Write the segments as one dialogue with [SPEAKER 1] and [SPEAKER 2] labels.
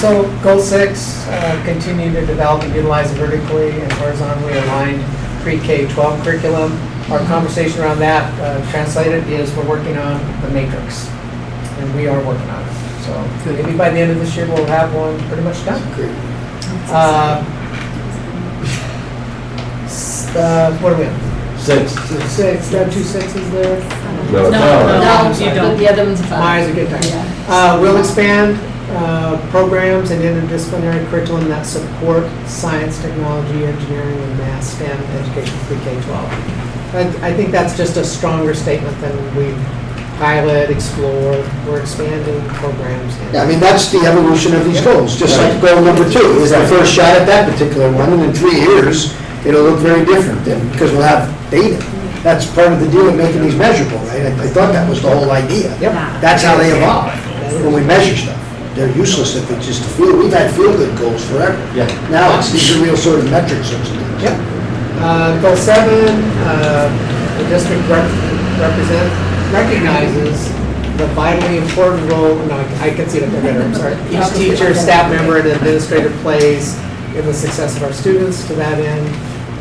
[SPEAKER 1] So goal six, uh, continue to develop and utilize a vertically and horizontally aligned pre-K-12 curriculum. Our conversation around that uh, translated is we're working on the matrix, and we are working on it. So maybe by the end of this year, we'll have one pretty much done. Uh, s- uh, What are we on?
[SPEAKER 2] Six.
[SPEAKER 1] Six, there are two sixes there.
[SPEAKER 2] No,
[SPEAKER 3] No,
[SPEAKER 2] no.
[SPEAKER 3] no,
[SPEAKER 1] you
[SPEAKER 3] but the other one's a
[SPEAKER 1] My eyes
[SPEAKER 3] five.
[SPEAKER 1] are getting tired.
[SPEAKER 3] Yeah.
[SPEAKER 1] Uh, We'll expand uh, programs and interdisciplinary curriculum that support science, technology, engineering, and math STEM education for K-12. I- I think that's just a stronger statement than we pilot, explore, we're expanding programs. and-
[SPEAKER 4] Yeah, I mean, that's the evolution of these goals, just like goal number two is our first shot at that particular one, and in three years, it'll look very different then, because we'll have data. That's part of the deal of making these measurable, right? I I thought that was the whole idea.
[SPEAKER 1] Yep.
[SPEAKER 4] That's how they evolve, when we measure stuff. They're useless if it's just a feel, we've had feel-good goals forever.
[SPEAKER 2] Yeah.
[SPEAKER 4] Now, it's these are real sort of metrics of something.
[SPEAKER 1] Yep. Uh, Goal seven, uh, the district rep- represent, recognizes the vitally important role, no, I I can see it up there better, I'm sorry. Each teacher, staff member, and administrator plays in the success of our students. To that end,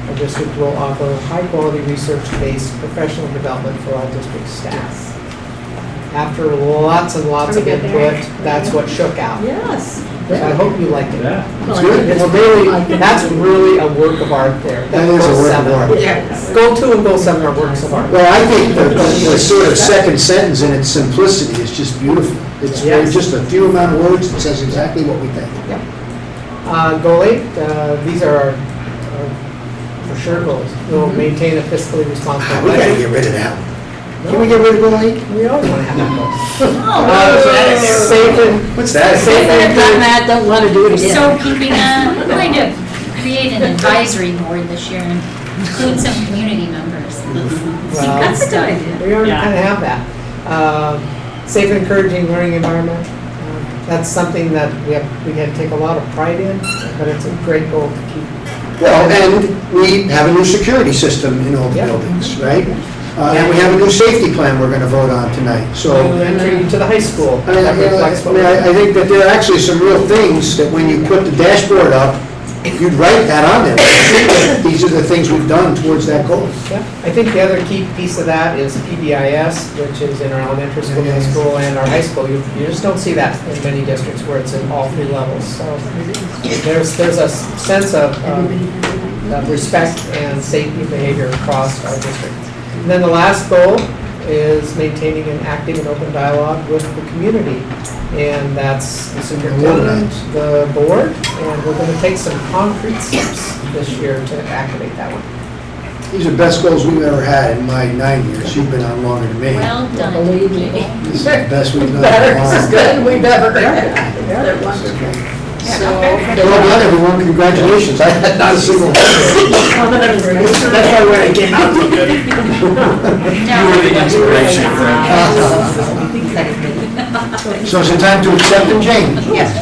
[SPEAKER 1] our district will offer high-quality research-based professional development for all district staff. After lots and lots
[SPEAKER 3] Are
[SPEAKER 1] of
[SPEAKER 3] we good there?
[SPEAKER 1] input, that's what shook out.
[SPEAKER 3] Yes.
[SPEAKER 1] So I hope you liked it.
[SPEAKER 2] Yeah.
[SPEAKER 4] It's good.
[SPEAKER 1] It's really, that's really a work of art there.
[SPEAKER 4] That is a
[SPEAKER 1] goal
[SPEAKER 4] work of
[SPEAKER 1] seven.
[SPEAKER 4] art.
[SPEAKER 3] Yes.
[SPEAKER 1] Goal two and goal seven are works of art.
[SPEAKER 4] Well, I think the, the sort of second sentence in its simplicity is just beautiful. It's very-
[SPEAKER 1] Yes.
[SPEAKER 4] just a few amount of words, it says exactly what we think.
[SPEAKER 1] Uh, Goal eight, uh, these are our- our for sure goals. We'll maintain a fiscally responsible
[SPEAKER 4] We gotta
[SPEAKER 1] budget.
[SPEAKER 4] get rid of that one. Can we get rid of goal eight?
[SPEAKER 1] We always want to have goals.
[SPEAKER 5] Oh,
[SPEAKER 3] Uh, that
[SPEAKER 1] Uh,
[SPEAKER 3] is-
[SPEAKER 1] Safe and,
[SPEAKER 4] What's
[SPEAKER 1] safe and
[SPEAKER 3] done
[SPEAKER 1] good.
[SPEAKER 3] that, don't want to do it again.
[SPEAKER 5] So can we, uh, we're going to create an advisory board this year and include some community members.
[SPEAKER 1] Well,
[SPEAKER 3] That's a good idea.
[SPEAKER 1] We already
[SPEAKER 6] Yeah.
[SPEAKER 1] kind of have that. Uh, Safe and encouraging learning environment. Uh, That's something that we have, we can take a lot of pride in, but it's a great goal to keep.
[SPEAKER 4] Well, and we have a new security system in all the
[SPEAKER 1] Yeah.
[SPEAKER 4] buildings, right? Uh, and we have a new safety plan we're gonna vote on tonight, so.
[SPEAKER 1] New entry to the high school.
[SPEAKER 4] I mean, I
[SPEAKER 1] that reflects what
[SPEAKER 4] mean,
[SPEAKER 1] we-
[SPEAKER 4] I- I think that there are actually some real things that when you put the dashboard up, you'd write that on there. These are the things we've done towards that goal.
[SPEAKER 1] Yeah, I think the other key piece of that is PBIS, which is in our elementary school, middle school, and our high school. You you just don't see that in many districts where it's in all three levels. So there's, there's a s- sense of um, of respect and safety behavior across our district. And then the last goal is maintaining an active and open dialogue with the community. And that's the superintendent, the board, and we're going to take some concrete steps this year to activate that one.
[SPEAKER 4] These are the best goals we've ever had in my nine years. You've been on longer than me.
[SPEAKER 5] Well done.
[SPEAKER 3] Believe me.
[SPEAKER 5] people.
[SPEAKER 4] This is the best we've done.
[SPEAKER 3] Better,
[SPEAKER 4] in a
[SPEAKER 3] this is
[SPEAKER 4] while.
[SPEAKER 3] good, we've ever heard
[SPEAKER 1] Yeah.
[SPEAKER 3] it. They're wonderful.
[SPEAKER 4] Well
[SPEAKER 3] So.
[SPEAKER 4] done, everyone. Congratulations. I had not a single one. That's why when I came out.
[SPEAKER 5] No,
[SPEAKER 2] inspiration for
[SPEAKER 4] So it's time to accept and change.
[SPEAKER 7] Yes.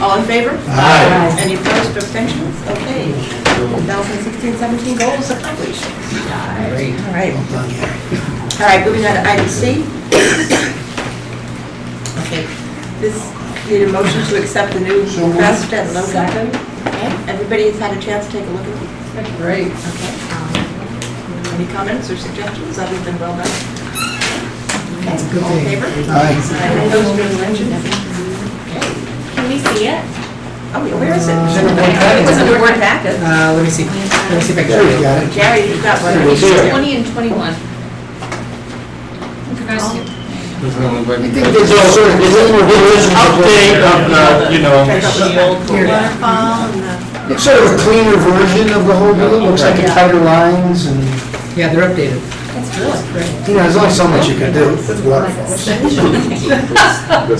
[SPEAKER 7] All in favor?
[SPEAKER 4] Aye.
[SPEAKER 7] Any opposed or abstentions? Okay. 2016-17 goals accomplished. All right. All right, moving on to item C. Okay. This, need a motion to accept the new
[SPEAKER 4] So moved.
[SPEAKER 7] best and low company. Everybody has had a chance to take a look at it?
[SPEAKER 3] Great.
[SPEAKER 7] Okay. Any comments or suggestions other than well done?
[SPEAKER 3] That's good.
[SPEAKER 7] All in favor?
[SPEAKER 4] Aye.
[SPEAKER 7] Any opposed or abstentions? Okay.
[SPEAKER 5] Can we see it?
[SPEAKER 7] Oh, where is it?
[SPEAKER 1] Is it in the board packet?
[SPEAKER 7] It was in the board packet.
[SPEAKER 1] Uh, let me see, let me see if I
[SPEAKER 4] There you
[SPEAKER 1] can.
[SPEAKER 4] got it.
[SPEAKER 7] Gary, you've got one.
[SPEAKER 4] It's here.
[SPEAKER 5] Twenty and twenty-one.
[SPEAKER 4] I think there's all sort of, there's a little religion
[SPEAKER 2] Update of uh, the, you know,
[SPEAKER 7] Waterfall and the-
[SPEAKER 4] It's sort of a cleaner version of the whole deal. It Looks like it tighter lines and,
[SPEAKER 1] Yeah, they're updated.
[SPEAKER 4] you know, there's only so much you can do with waterfalls.
[SPEAKER 2] and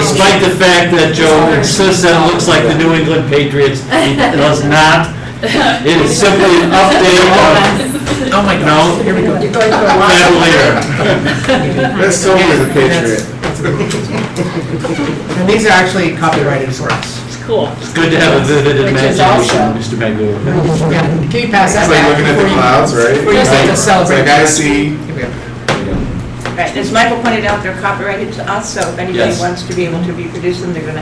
[SPEAKER 2] despite the fact that Joe insists that it looks like the New England Patriots, it does not. It is simply an update of, oh my God, no, here we go. Cavalier.
[SPEAKER 8] That's totally the Patriot.
[SPEAKER 1] And these are actually copyrighted works.
[SPEAKER 2] It's good to have a vivid
[SPEAKER 3] Which is
[SPEAKER 2] imagination, Mr. Magoo.
[SPEAKER 1] Yeah, can you pass that
[SPEAKER 8] It's like
[SPEAKER 1] back
[SPEAKER 8] looking at
[SPEAKER 1] before
[SPEAKER 8] the
[SPEAKER 1] you-
[SPEAKER 8] clouds, right?
[SPEAKER 1] before you start to
[SPEAKER 8] Like-
[SPEAKER 1] celebrate?
[SPEAKER 8] Like I see,
[SPEAKER 1] Here we go.
[SPEAKER 7] Right, as Michael pointed out, they're copyrighted to us, so if anybody
[SPEAKER 2] Yes.
[SPEAKER 7] wants to be able to reproduce them, they're going to